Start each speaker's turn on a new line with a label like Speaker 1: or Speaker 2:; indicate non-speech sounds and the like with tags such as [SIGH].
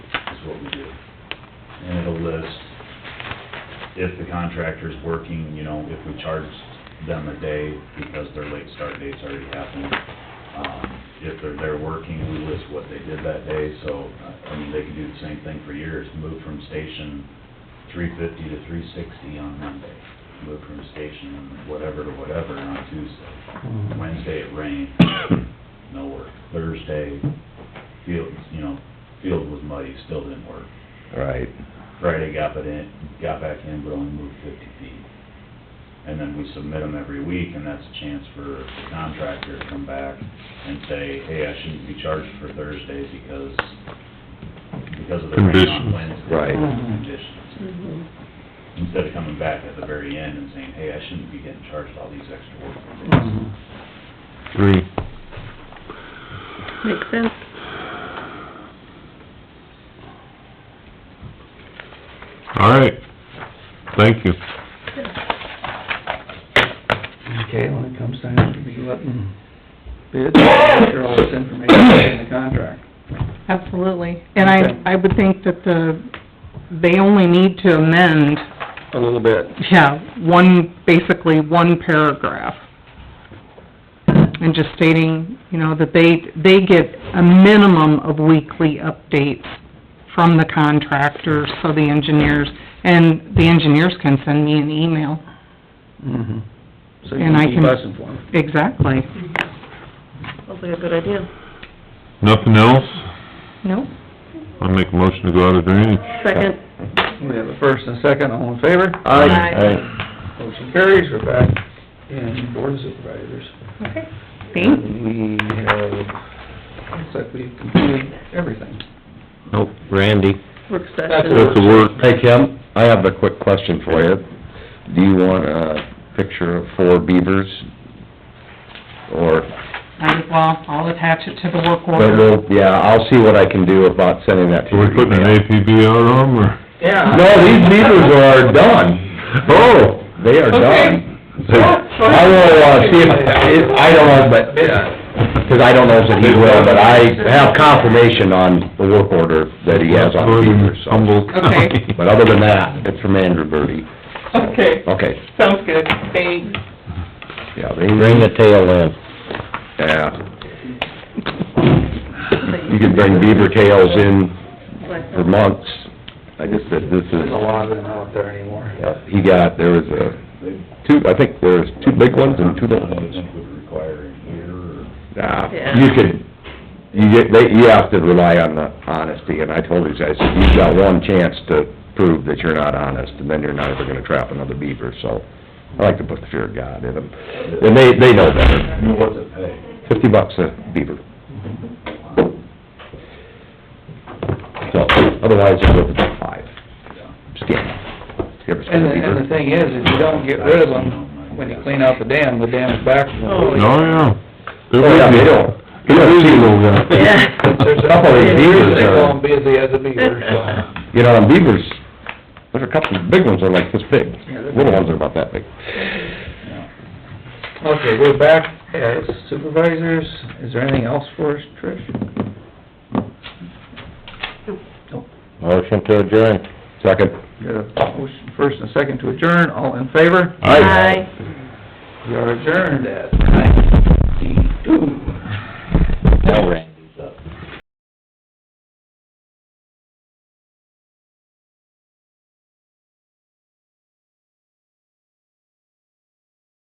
Speaker 1: if the contractor's working, you know, if we charge them a day because their late start date's already happened. Um, If they're there working, we list what they did that day, so, uh, I- I mean, they could do the same thing for years, move from station three fifty to three sixty on Monday, move from station whatever to whatever on Tuesday.
Speaker 2: Mhm.
Speaker 1: Wednesday it rained, no work. Thursday, field, you know, field was muddy, still didn't work.
Speaker 2: Right.
Speaker 1: Friday got but in, got back in, but only moved fifty feet. And then we submit them every week, and that's a chance for the contractor to come back and say, hey, I shouldn't be charged for Thursday because, because of the rain on
Speaker 3: Conditions.
Speaker 1: Wednesday.
Speaker 2: Right.
Speaker 1: Conditions. Instead of coming back at the very end and saying, hey, I shouldn't be getting charged all these extra work days.
Speaker 2: Mm-hmm.
Speaker 3: Three.
Speaker 4: Makes sense.
Speaker 3: All right, thank you.
Speaker 2: Okay, when it comes time to be letting bids, get all this information in the contract.
Speaker 4: Absolutely. And I,
Speaker 2: Okay.
Speaker 4: I would think that the, they only need to amend,
Speaker 2: A little bit.
Speaker 4: yeah, one, basically one paragraph. And just stating, you know, that they, they get a minimum of weekly updates from the contractors, so the engineers, and the engineers can send me an email.
Speaker 2: Mm-hmm. So you
Speaker 4: And I
Speaker 2: can keep
Speaker 4: can-
Speaker 2: us informed.
Speaker 4: Exactly.
Speaker 5: Sounds like a good idea.
Speaker 3: Nothing else?
Speaker 4: Nope.
Speaker 3: I'll make a motion to go out of drainage.
Speaker 5: Second,
Speaker 2: We have a first and a second, all in favor?
Speaker 5: Aye.
Speaker 2: Motion carries, we're back in board of supervisors.
Speaker 4: Okay. Thanks.
Speaker 2: We have, looks like we've completed everything.
Speaker 6: Nope, Randy.
Speaker 5: work
Speaker 2: That's
Speaker 5: session.
Speaker 2: it.
Speaker 3: That's the word.
Speaker 6: Hey, Kim, I have a quick question for you. Do you want a picture of four beavers? Or,
Speaker 4: I, well, I'll attach it to the work
Speaker 6: but
Speaker 4: order.
Speaker 6: we'll, yeah, I'll see what I can do about sending that to
Speaker 3: Are
Speaker 6: you.
Speaker 3: we putting an APB out on them, or?
Speaker 2: Yeah.
Speaker 6: No, these beavers are done. Oh, they are done. I will, uh, see if, if- I don't know, but, uh 'cause I don't know if he will, but I have confirmation on the work order that he has on the beavers, so.
Speaker 3: Humboldt
Speaker 4: [LAUGHS]
Speaker 3: County.
Speaker 6: But other than that, it's from Andrew Birdie.
Speaker 4: Okay,
Speaker 6: Okay,
Speaker 4: sounds good. Thanks.
Speaker 6: yeah, they bring the tail in. Yeah. You could bring beaver tails in for months. I just said, this
Speaker 2: There's
Speaker 6: is,
Speaker 2: a lot of them out there anymore.
Speaker 6: yeah, he got, there was a,
Speaker 1: They-
Speaker 6: two, I think there was two big ones and two little
Speaker 1: I
Speaker 6: ones.
Speaker 1: think would require a year or
Speaker 6: Nah,
Speaker 5: Yeah.
Speaker 6: you could, you get, they, you have to rely on the honesty, and I told these guys, you've got one chance to prove that you're not honest, and then you're not ever gonna trap another beaver, so I like to put the fear of God in them. And they, they know better.
Speaker 1: You know, what's it pay?
Speaker 6: Fifty bucks a beaver. So, otherwise, it's worth about five. Skin. You ever
Speaker 2: And the,
Speaker 6: skin a
Speaker 2: and the
Speaker 6: beaver?
Speaker 2: thing is, if you don't get rid of them, when you clean out the dam, the dam's back.
Speaker 5: Oh,
Speaker 3: Oh, yeah. They're
Speaker 6: Oh, yeah, they don't. They don't see
Speaker 3: illegal,
Speaker 6: them.
Speaker 5: Yeah.
Speaker 2: There's a
Speaker 6: Couple
Speaker 2: couple
Speaker 6: of
Speaker 2: of
Speaker 6: beavers
Speaker 2: years, they
Speaker 6: are-
Speaker 2: call them busy as a beaver, so.
Speaker 5: [LAUGHS]
Speaker 6: You know, and beavers, there's a couple, big ones are like this big,
Speaker 2: Yeah, they're-
Speaker 6: little ones are about that big.
Speaker 2: Okay, we're back as supervisors. Is there anything else for us, Trish?
Speaker 6: Motion to adjourn. Second.
Speaker 2: Got a motion first and a second to adjourn, all in favor?
Speaker 5: Aye.
Speaker 2: We are adjourned at nine fifty-two.
Speaker 6: Bell rang.